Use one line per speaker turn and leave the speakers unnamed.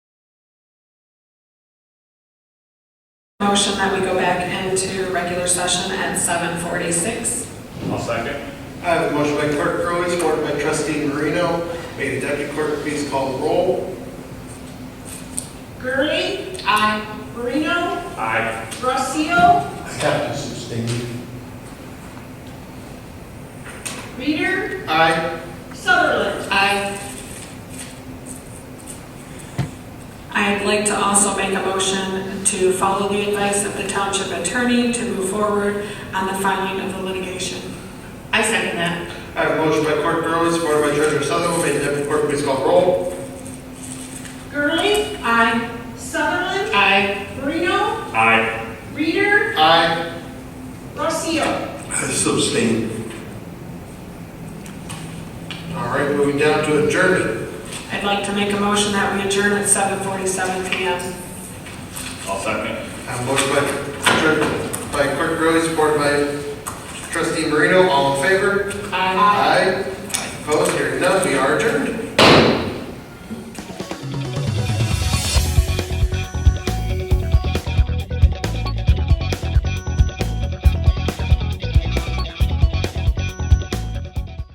Motion that we go back into regular session at 7:46.
I'll second.
I have a motion by Clerk Curley, supported by Trustee Marino. May the deputy clerk please call the roll.
Gurley? Aye. Marino?
Aye.
Rossio?
I have to sustain.
Reader?
Aye.
Sutherland? Aye.
I'd like to also make a motion to follow the advice of the township attorney to move forward on the filing of the litigation.
I second that.
I have a motion by Clerk Curley, supported by Treasurer Sutherland. May the deputy clerk please call the roll.
Gurley?
Aye.
Sutherland?
Aye.
Marino?
Aye.
Reader?
Aye.
Rossio?
I sustain.
All right, moving down to adjournment.
I'd like to make a motion that we adjourn at 7:47 PM.
I'll second.
I have a motion by Tre- by Clerk Curley, supported by Trustee Marino. All in favor? Aye. Opposed? Hearing none, we are adjourned.